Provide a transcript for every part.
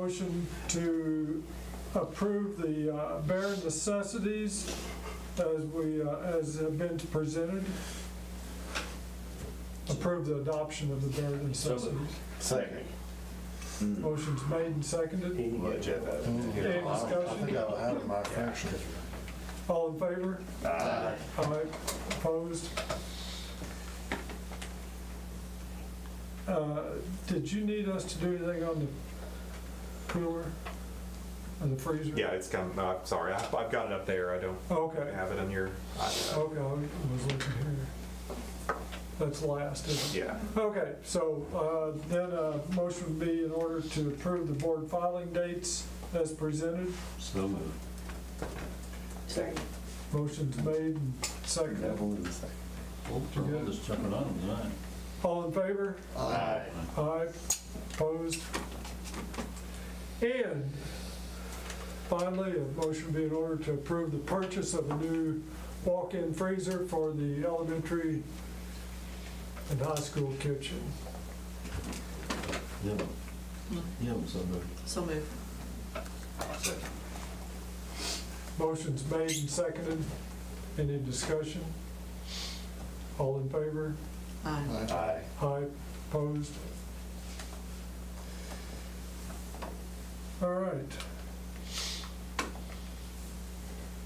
Motion to approve the uh, bare necessities as we, uh, as have been presented. Approve the adoption of the bare necessities. Second. Motion's made and seconded. Mm. Any I think discussion? I'll have my fraction. All in favor? Aye. Opposed? Uh, Did you need us to do anything on the cooler? Or the freezer? Yeah, it's come, uh, sorry, I- I've got it up there, I don't Okay. have it on your, I- Okay, I was looking here. That's last, isn't it? yeah. Okay, so uh, then a motion would be in order to approve the board filing dates as presented. So moved. Motion's made and seconded. Devil in the second. Well, we're all just jumping on them tonight. All in favor? Aye. Aye. Opposed? And finally, a motion be in order to approve the purchase of a new walk-in freezer for the elementary and high school kitchen. Give them, give them some of So move. Motion's made and seconded. Any discussion? All in favor? Aye. Aye. Aye. Opposed? All right.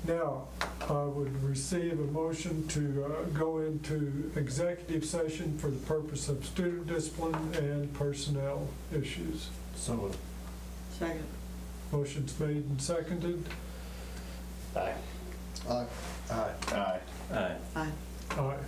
Now, I would receive a motion to uh, go into executive session for the purpose of student discipline and personnel issues. So moved. Second. Motion's made and seconded. Aye. Aye. Aye. Aye. Aye. Aye.